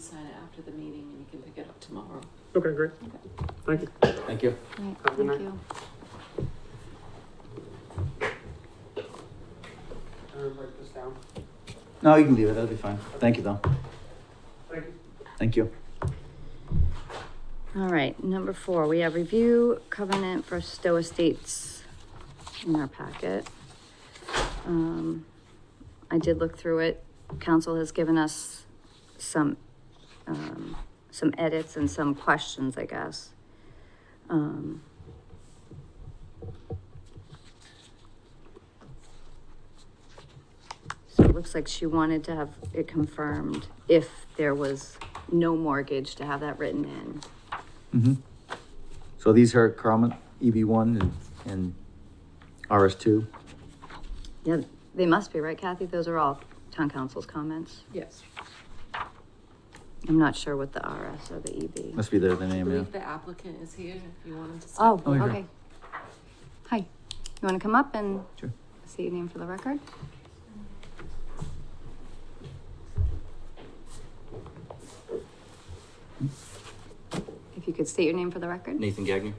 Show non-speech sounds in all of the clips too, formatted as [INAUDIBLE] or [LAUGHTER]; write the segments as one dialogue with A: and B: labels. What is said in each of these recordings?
A: sign it after the meeting and you can pick it up tomorrow.
B: Okay, great. Thank you.
C: Thank you.
D: Right,
B: Have a good night.
D: thank you.
B: Everyone break this down.
C: No, you can leave it. That'll be fine. Thank you, though.
B: Thank you.
C: Thank you.
D: All right, number four, we have review covenant for Stowe Estates in our packet. Um, I did look through it. Council has given us some, um, some edits and some questions, I guess. Um, So it looks like she wanted to have it confirmed if there was no mortgage to have that written in.
C: Mm-hmm. So these are Carmen EB one and, and RS two.
D: Yeah, they must be, right, Kathy? Those are all town council's comments.
A: Yes.
D: I'm not sure what the RS or the E EB.
C: Must be the, the
A: I
C: name, yeah.
A: believe the applicant is here if you want him to. say-
D: Oh,
C: Oh, here.
D: okay. Hi, you want to come up and
C: Sure.
D: say your name for the record? If you could state your name for the record?
E: Nathan Gagnon,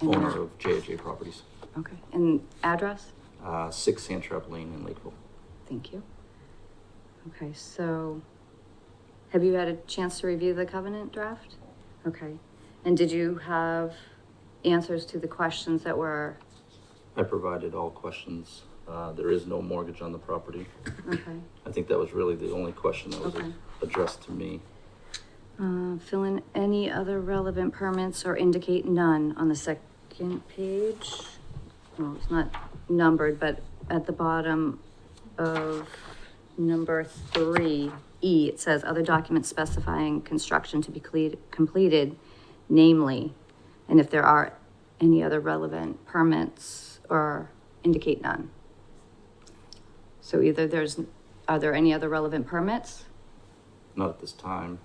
D: And-
E: owner of JJ Properties,
D: Okay, and address?
E: uh, six Sandtrap Lane in Lakeville.
D: Thank you. Okay, so have you had a chance to review the covenant draft? Okay, and did you have answers to the questions that were,
E: I provided all questions. Uh, there is no mortgage on the property.
D: okay?
E: I think that was really the only question that was
D: Okay.
E: addressed to me.
D: Uh, fill in any other relevant permits or indicate none on the second page. Well, it's not numbered, but at the bottom of number three, E, it says other documents specifying construction to be cleat- completed, namely, and if there are any other relevant permits or indicate none. So either there's, are there any other relevant permits?
E: Not at this time.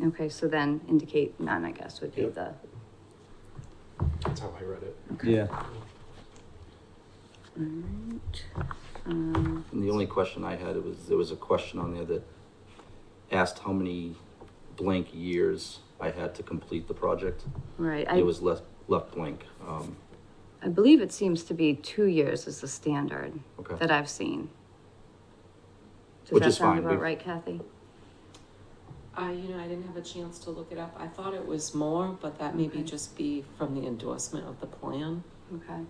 D: Okay, so then indicate none, I guess, would be
E: Yep.
D: the,
F: That's how I read it.
C: Yeah.
D: alright. Um,
E: And the only question I had was there was a question on there that asked how many blank years I had to complete the project.
D: right,
E: it
D: I,
E: was left left blank. Um,
D: I believe it seems to be two years is the standard
E: okay.
D: that I've seen. Does
E: Which
D: that
E: is
D: sound
E: fine,
D: about
E: we-
D: right, Kathy?
A: I, you know, I didn't have a chance to look it up. I thought it was more, but that may be
D: Okay.
A: just be from the endorsement of the plan.
D: Okay,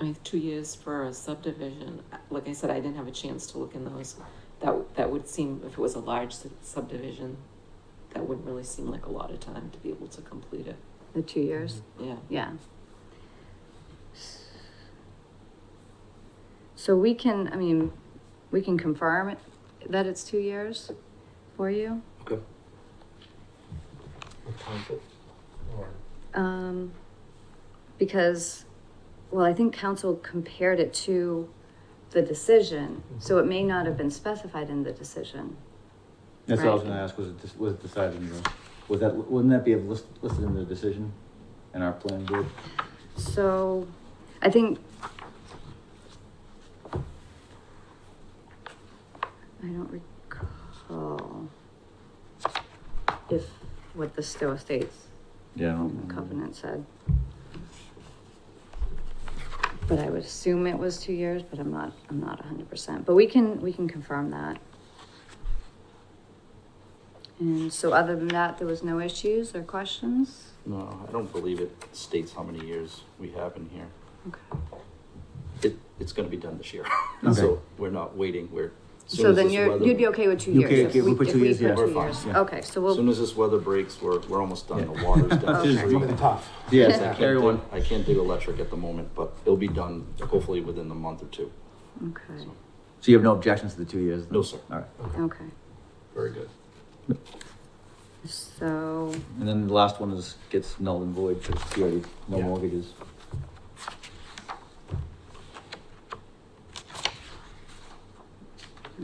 A: I mean, two years for a subdivision, like I said, I didn't have a chance to look in those. That, that would seem, if it was a large sub- subdivision, that wouldn't really seem like a lot of time to be able to complete it,
D: the two years,
A: yeah.
E: Mm-hmm.
D: yeah. So we can, I mean, we can confirm it- that it's two years for you?
E: Okay.
F: With conflict or
D: Um, because, well, I think council compared it to the decision, so it may not have been specified in the decision.
C: That's what I was
D: Right.
C: gonna ask, was it, dis- was it decided, in the- was that, wouldn't that be list- listed in the decision in our plan board?
D: So, I think. I don't recall if what the Stowe Estates
C: Yeah. I don't
D: the
C: know.
D: covenant said. But I would assume it was two years, but I'm not, I'm not hundred percent, but we can, we can confirm that. And so other than that, there was no issues or questions?
E: No, I don't believe it states how many years we have in here.
D: Okay.
E: It, it's gonna be done
C: [LAUGHS]
E: this year.
C: Okay.
E: So we're not waiting, we're. as soon
D: So
E: as
D: then
E: this
D: you're,
E: weather-
D: you'd be okay with two
C: You
D: years?
C: okay-
D: if
C: okay, we put
D: if
C: two years, yeah.
D: put two
E: We're fine,
D: years.
C: yeah.
D: Okay, so
E: As soon
D: we'll,
E: as this weather breaks, we're, we're almost done, the
C: Yeah.
E: water's down.
D: [LAUGHS] Okay.
E: to three.
F: Really tough.
C: Yes,
E: I can't
C: carry
E: do-
C: on.
E: I can't do electric at the moment, but it'll be done hopefully within a month or two.
D: okay,
E: So,
C: So you have no objections to the two years? then?
E: No, sir.
C: All right.
D: okay,
F: Very good.
D: so,
C: And then the last one is, gets null and void, because it's already, no
F: Yeah.
C: mortgages.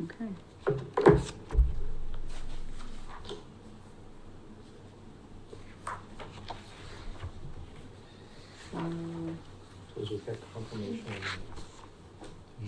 D: okay.